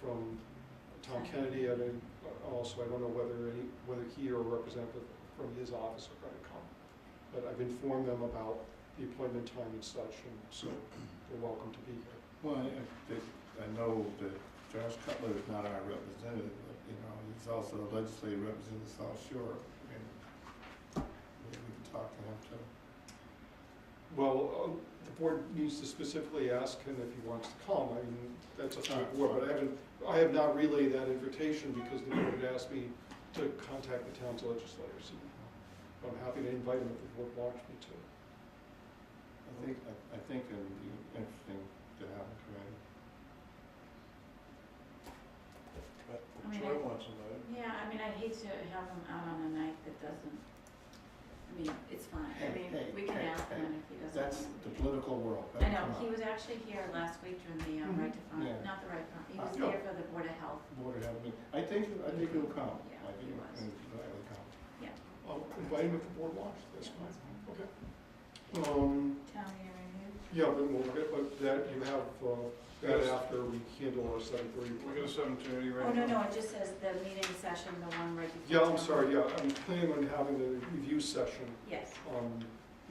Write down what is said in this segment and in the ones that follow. from Tom Kennedy, I mean, also, I don't know whether any, whether he or a representative from his office are gonna come. But I've informed them about the appointment time and such, and so they're welcome to be here. Well, I- I, think- I know that Josh Cutler is not our representative, but, you know, he's also a legislative representative of South Shore. and we we can talk to him too. Well, uh, the board needs to specifically ask him if he wants to come, I mean, that's a full board, but I haven't, I have not relayed that invitation because the board had asked me to contact the town's legislators. and I'm happy to invite him if the board wants me to. I think, I- I think it would be interesting to have him come in. I mean, Troy I- wants them, right? Yeah, I mean, I'd hate to have him out on a night that doesn't, I mean, it's fine, I Hey, mean, hey, we can hey, ask hey, him if he doesn't. That's want the to. political world. I know, Come on. Mm-hmm. he was actually here last week during the um, Mhm. Right to Yeah. Farm, not the Right to Farm, he Uh, was no. there for the Board of Health. Board of Health, meeting. I think, I think he'll come. Yeah, I think he was. he'll he'll come. I'll invite him if the board wants, that's Yeah, that's fine, okay. Um, Town meeting review? yeah, but we'll get, but that, you have, uh, that Yes. after we handle our seven thirty. We got a seven thirty right Oh, no, now. no, it just says the meeting session, the one right Yeah, before. I'm town. sorry, yeah, I'm planning on having a review session Yes, um,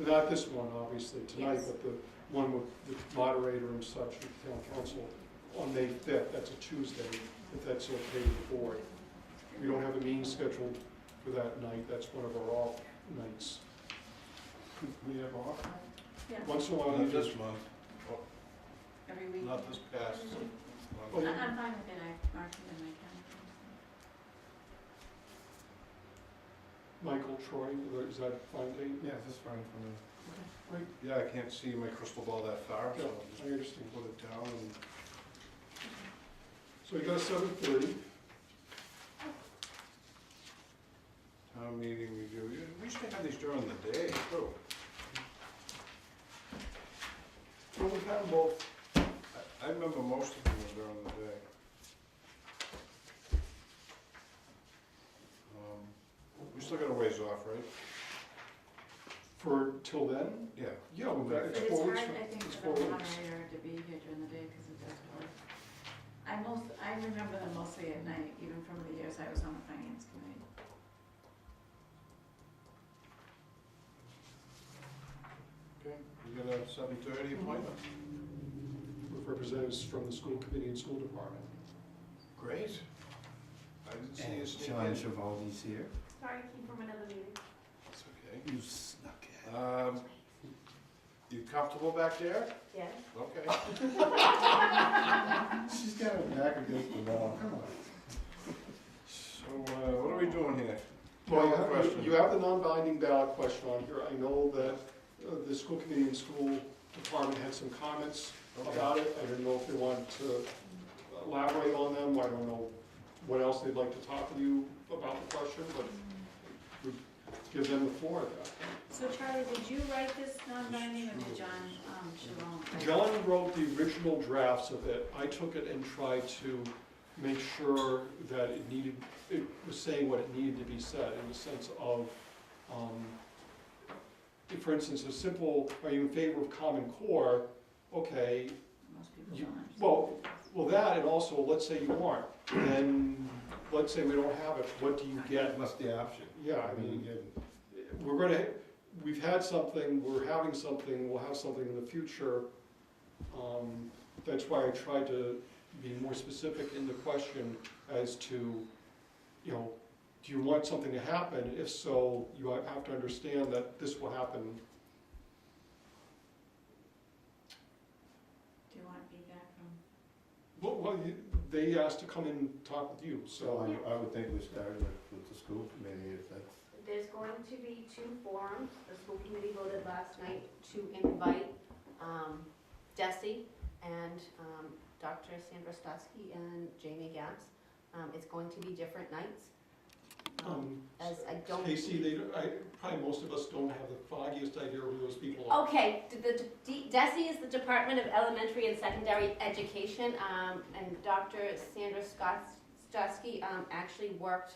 not this one, obviously, tonight, Yes. but the one with the moderator and such, with town council, on May fifth, that's a Tuesday, if that's okay with the board. We don't have a meeting scheduled for that night, that's one of our off nights. We have off? yeah, Once in a while, Oh, Not you just, this month, every week. not this past Oh, month. I- I'm fine with it, I marked it in my calendar. Michael Troy, is that fine, Dave? Yeah, that's fine for me. Great, Yeah, I can't see my crystal ball that far, so Yeah, I'll just I understand. put it down and So you got seven thirty, town meeting review. Yeah, We used to have these during the day, too. well, we have both, I- I remember most of them were during the day. Um, We still got a ways off, right? for till then, Yeah. yeah, well, that, But it's it's four hard, weeks. I think, it's for the four weeks. moderator to be here during the day, because it does work. I most, I remember them mostly at night, even from the years I was on the finance committee. Okay, we got a seven thirty appointment. With representatives from the school committee and school department. Great. I didn't see you And sneak John in. Givaldi's here. Sorry, I came from another meeting. It's okay. You snuck in. Um, you comfortable back there? Yes. Okay. She's got her back against the wall, come on. So, uh, what are we doing here? Well, you Ballot have, question. you have the non-binding ballot question on here. I know that uh, the school committee and school department had some comments about it. I do not know if they want to elaborate on them. I don't know what else they'd like to talk with you about the question, Mm. but we give them the floor at that. So Charlie, did you write this non-binding, or did John, um, Shalom? John wrote the original drafts of it. I took it and tried to make sure that it needed, it was saying what it needed to be said in the sense of, um, if, for instance, a simple, are you in favor of Common Core? Okay, Most people You- don't. understand. well, well, that, and also, let's say you aren't, then, let's say we don't have it, what do you get? What's the option? Yeah, I Mm-hmm. mean, we're gonna, we've had something, we're having something, we'll have something in the future. Um, That's why I tried to be more specific in the question as to, you know, do you want something to happen? If so, you have to understand that this will happen. Do you want feedback from, Well, well, you- they asked to come and talk with you, So so, I, I would think we started with, with the school committee, if that's, There's going to be two forums. The school committee voted last night to invite um, Desi and um, Dr. Sandra Stosky and Jamie Gaps. Um, It's going to be different nights. um, um, As I don't. Casey, they, I, probably most of us don't have the foggiest idea who those Oh, people are. Okay, d- the, D- DESE is the Department of Elementary and Secondary Education, um, and Dr. Sandra Stosky, um, actually worked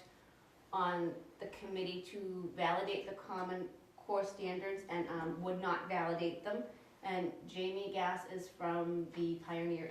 on the committee to validate the Common Core standards and, um, would not validate them. And Jamie Gass is from the Pioneer